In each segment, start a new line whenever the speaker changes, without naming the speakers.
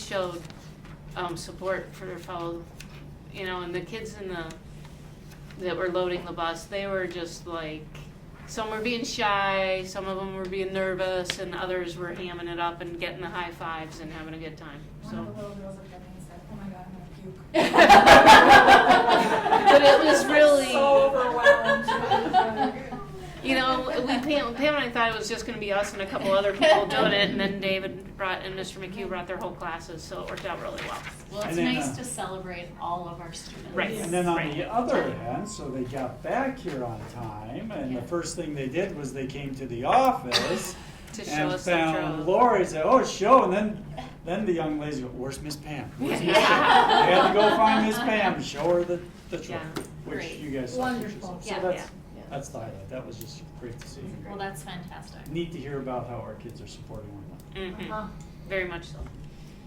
showed um, support for their fellow, you know, and the kids in the that were loading the bus, they were just like some were being shy, some of them were being nervous, and others were hamming it up and getting the high fives and having a good time.
One of
So,
the little girls looked at me and said, oh my god, I'm gonna puke.
But it was really-
So overwhelmed.
you know, we Pam, Pam and I thought it was just going to be us and a couple other people doing it, and then David brought and Mr. McHugh brought their whole classes, so it worked out really well.
Well,
And
it's
then, uh,
nice to celebrate all of our students.
Right.
And then on
Right.
the other end, so they got back here on time, and the
Yeah.
first thing they did was they came to the office
To show
and
us the
found
drone.
Lori, said, oh, show, and then, then the young ladies go, where's Miss Pam? Where's Miss Pam?
Yeah.
They had to go find Miss Pam, show her the, the
Yeah.
truck, which
Great.
you guys saw pictures
Wonderful.
of.
Yeah,
So that's,
yeah.
that's the highlight, that was just great to see.
Well, that's fantastic.
Neat uh, to hear about how our kids are supporting one another.
hmm
Mm.
Uh-huh.
Very much so.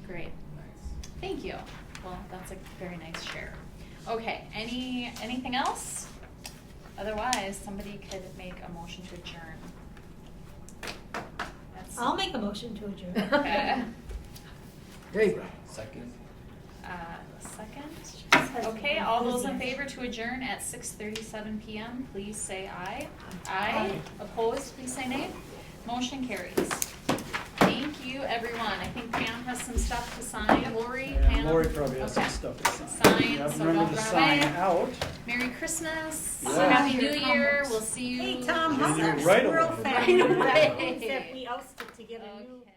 Great. Thank you. Well, that's a very nice share. Okay, any, anything else? Otherwise, somebody could make a motion to adjourn. That's-
I'll make a motion to adjourn.
Okay.
Great. Second.
Uh, Second. Okay, all those in favor to adjourn at six thirty-seven PM, please say aye. Aye. Opposed, please say nay. Motion carries. Thank you, everyone. I think Pam has some stuff to sign. Lori, Pam.
And Lori probably has some
Okay.
stuff to sign.
Sign,
Yep,
so
Remember
don't
to
run
sign
away.
out.
Merry Christmas.
Yeah.
Happy New
Your
Year.
comments.
We'll see you.
Hey, Tom,
Yeah,
how's
you're
our
right
squirrel
away.
family?
Right
That
away.
means that we ousted to get a new.
Okay.